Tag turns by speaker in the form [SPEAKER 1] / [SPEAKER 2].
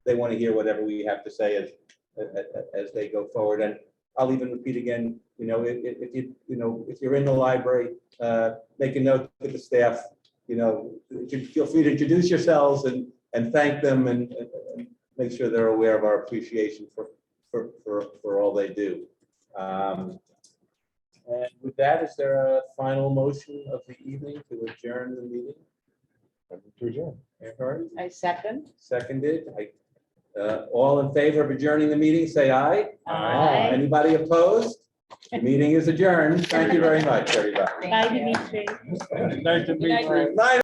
[SPEAKER 1] they want to hear whatever we have to say as, a- a- as they go forward. And I'll even repeat again, you know, if, if if you, you know, if you're in the library, uh, make a note to the staff, you know, you feel free to introduce yourselves and, and thank them and, and- and make sure they're aware of our appreciation for, for, for, for all they do. Um, And with that, is there a final motion of the evening to adjourn the meeting?
[SPEAKER 2] To adjourn.
[SPEAKER 1] Mayor Hurd,
[SPEAKER 3] I second.
[SPEAKER 1] Seconded. I, uh, All in favor of adjourning the meeting, say aye.
[SPEAKER 3] Aye.
[SPEAKER 1] Anybody opposed? The meeting is adjourned. Thank you very much, everybody.
[SPEAKER 3] Bye, Dimitri.
[SPEAKER 1] Night.